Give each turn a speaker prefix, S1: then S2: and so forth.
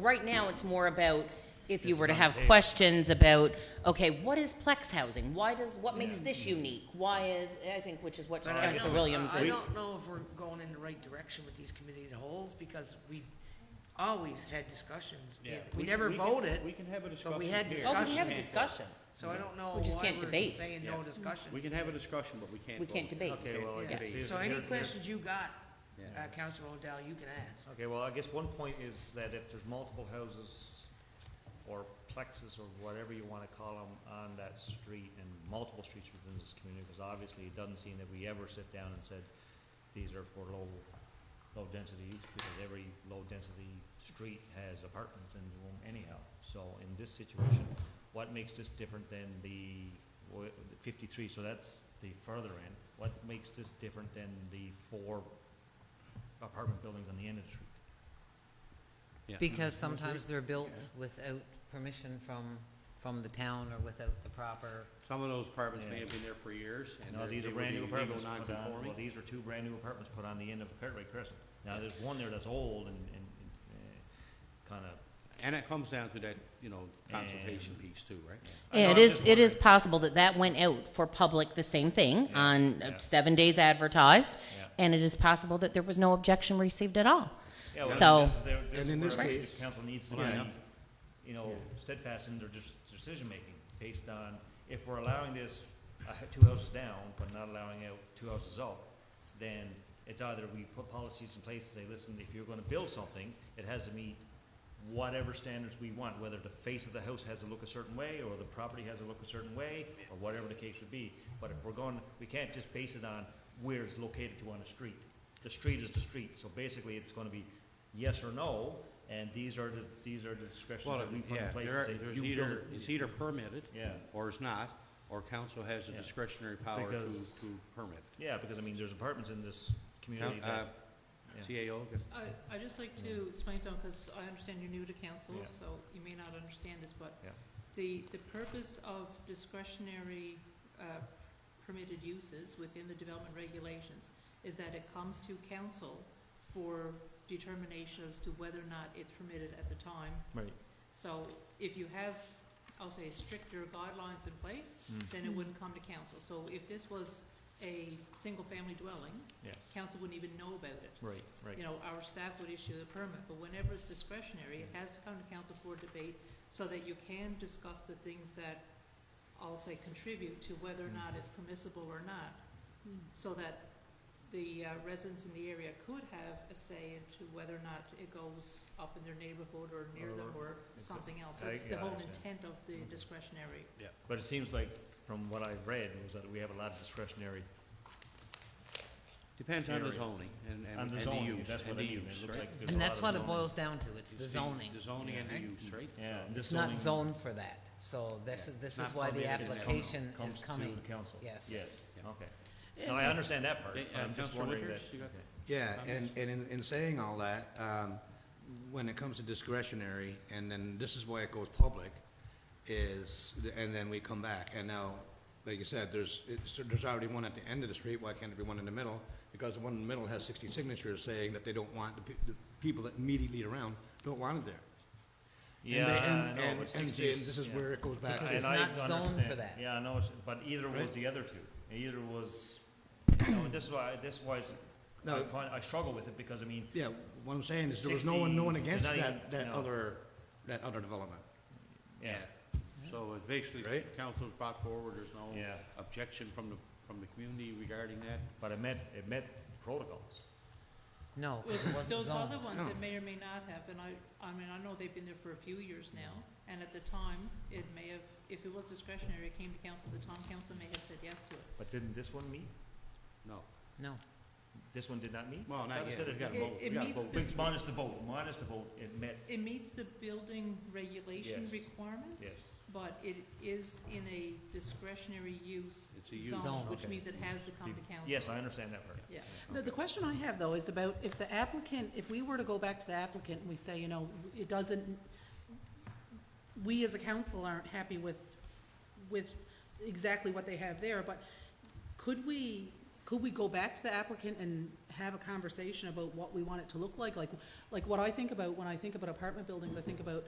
S1: Right now, it's more about if you
S2: This
S1: were to
S2: is on
S1: have
S2: the table.
S1: questions about, okay, what is plex housing? Why does, what makes this unique? Why is, I think, which is what
S3: But I
S1: Council
S3: don't-
S1: Williams
S3: I
S1: is.
S3: don't know if we're going in the right direction with these committee of the holes, because we always had discussions. We-
S2: Yeah.
S3: We never
S2: can-
S3: voted,
S2: We can have a discussion
S3: but we had
S2: here.
S1: Oh, we can have a
S3: discussion.
S1: discussion.
S3: so I don't know
S1: We just
S3: why
S1: can't
S3: we're
S1: debate.
S3: saying no
S2: Yeah. We
S3: discussion.
S2: can have a discussion, but we can't
S1: We can't
S2: vote.
S1: debate.
S4: Okay, well,
S3: Yeah.
S4: it could be.
S3: So any
S4: here- here-
S3: questions you got,
S2: Yeah.
S3: uh, Councilor O'Dell, you can ask.
S4: Okay, well, I guess one point is that if there's multiple houses or plexes or whatever you want to call them on that street and multiple streets within this community, because obviously it doesn't seem that we ever sit down and said, these are for low, low density use, because every low density street has apartments in the room anyhow. So in this situation, what makes this different than the wha- the fifty-three, so that's the further end, what makes this different than the four apartment buildings on the end of the street?
S5: Because sometimes they're built without permission from, from the town or without the proper,
S2: Some of those apartments may
S4: Yeah.
S2: have been there for years, and
S4: No,
S2: they're-
S4: these
S2: they
S4: are
S2: would
S4: brand
S2: be
S4: new
S2: legal
S4: apartments put on, well,
S2: non-conforming.
S4: these are two brand new apartments put on the end of Cartwright Crescent. Now, there's one there that's old and, and, eh, kind of,
S2: And it comes down to that, you know, consultation piece too, right?
S4: I know,
S1: Yeah, it
S4: I'm
S1: is,
S4: just
S1: it is
S4: wondering.
S1: possible that that went out for public, the same thing,
S4: Yeah,
S1: on
S4: yeah.
S1: seven days advertised,
S4: Yeah.
S1: and it is possible that there was no objection received at all.
S4: yeah, well,
S1: So-
S4: this is, there- this
S2: And
S4: is
S2: in
S4: where
S2: this
S4: the
S2: case-
S4: council needs to be,
S2: Yeah.
S4: you know, steadfast in their dis- decision-making, based on, if we're allowing this, uh, two houses down, but not allowing out two houses up, then it's either we put policies in place to say, listen, if you're gonna build something, it has to meet whatever standards we want, whether the face of the house has to look a certain way, or the property has to look a certain way, or whatever the case would be. But if we're going, we can't just base it on where it's located to on a street. The street is the street, so basically it's gonna be yes or no, and these are the, these are the discretions
S2: Well,
S4: that we put in
S2: yeah,
S4: place
S2: there
S4: to
S2: are-
S4: say,
S2: there's
S4: you build
S2: either,
S4: it.
S2: it's either permitted,
S4: Yeah.
S2: or it's not, or council has a
S4: Yeah.
S2: discretionary power to,
S4: Because-
S2: to permit.
S4: Yeah, because I mean, there's apartments in this community
S2: Coun-
S4: that,
S2: uh,
S4: yeah.
S2: CAO, gets-
S6: I, I'd just like to explain something, because I understand you're new to council,
S4: Yeah.
S6: so you may not understand this, but
S4: Yeah.
S6: the, the purpose of discretionary uh, permitted uses within the development regulations is that it comes to council for determination as to whether or not it's permitted at the time.
S4: right,
S6: So if you have, I'll say, stricter guidelines in place,
S4: Mm.
S6: then it wouldn't come to council. So if this was a single-family dwelling,
S4: yes,
S6: council wouldn't even know about it
S4: right, right.
S6: you know, our staff would issue the permit, but whenever it's discretionary, it has to come to council for debate so that you can discuss the things that, I'll say, contribute to whether
S4: Hmm.
S6: or not it's permissible or not, so that the uh, residents in the area could have a say into whether or not it goes up in their neighborhood or near them or something else.
S4: I-
S6: That's
S4: yeah, Mm-hmm.
S6: the
S4: I
S6: whole
S4: understand.
S6: intent of the discretionary.
S4: But it seems like, from what I've read, was that we have a lot of discretionary
S2: depends on the
S4: Areas.
S2: zoning and, and
S4: on
S2: and
S4: the
S2: the
S4: zoning,
S2: use,
S4: that's
S2: and
S4: what I
S2: the
S4: mean. It
S2: use,
S4: looks
S2: right?
S4: like there's a
S5: and
S4: lot
S5: that's
S4: of
S5: what it
S4: zoning.
S5: boils down to, it's the
S2: It's
S5: zoning.
S2: The zoning and the
S5: right?
S2: use, right?
S4: Yeah, and this
S5: It's
S4: zoning.
S5: not zoned for that, so this,
S2: Yeah.
S5: is this
S2: Not
S5: is why the
S2: permitted, it's
S5: application
S4: comes
S5: is
S4: to
S5: coming.
S4: the council.
S5: Yes.
S4: Yes,
S2: Yeah.
S4: okay. No, I understand that part,
S2: Uh,
S4: I'm just
S2: Councilor
S4: wondering that.
S2: Winters, you got-
S4: okay.
S7: Yeah, and, and in, in saying all that, um, when it comes to discretionary, and then this is why it goes public, is, and then we come back, and now, like you said, there's, it's, there's already one at the end of the street, why can't there be one in the middle? Because the one in the middle has sixty signatures saying that they don't want, the, pe- the people that immediately around don't want it there. And they-
S4: Yeah, I
S7: and-
S4: know,
S7: and-
S4: but
S7: and
S4: 16
S7: see, and this is
S4: yeah.
S7: where it goes back.
S5: Because
S4: And
S5: it's
S4: I
S5: not zoned for
S4: understand.
S5: that.
S4: Yeah, I know, it's- but either was
S7: Right.
S4: the other two. Either was, you know, this is why, this is why it's- I
S7: No.
S4: find, I struggle with it because, I mean,
S7: Yeah, what I'm saying is, there was no one, no one
S4: 60, there's
S7: against
S4: not even-
S7: that, that
S4: no.
S7: other, that other development.
S4: yeah,
S2: So it's basically,
S7: Right?
S2: council's brought forward, there's no
S4: Yeah.
S2: objection from the, from the community regarding that.
S4: but it met, it met protocols.
S5: No, 'cause it
S6: Well,
S5: wasn't
S6: those
S5: zoned.
S6: other ones that may or may not have, and I, I mean, I know they've been there for a few years now, and at the time, it may have, if it was discretionary, it came to council, the town council may have said yes to it.
S4: But didn't this one meet?
S2: No.
S5: No,
S4: This one did not meet?
S2: Well,
S4: I
S2: not
S4: thought it
S2: yet.
S4: said
S2: We
S4: it-
S2: gotta
S6: It-
S2: vote, we
S6: it
S2: gotta
S6: meets
S2: vote.
S6: the-
S2: Big-
S4: Minus the vote, minus the vote, it met,
S6: It meets the building regulation
S4: Yes.
S6: requirements.
S4: Yes.
S6: But it is in a discretionary use
S2: It's a use,
S6: zone,
S5: okay.
S6: which means it has to come to council.
S4: yes, I understand that part.
S6: Yeah.
S8: The, the question I have, though, is about if the applicant, if we were to go back to the applicant and we say, you know, it doesn't, we as a council aren't happy with, with exactly what they have there, but could we, could we go back to the applicant and have a conversation about what we want it to look like? Like, Like, what I think about, when I think about apartment buildings, I think about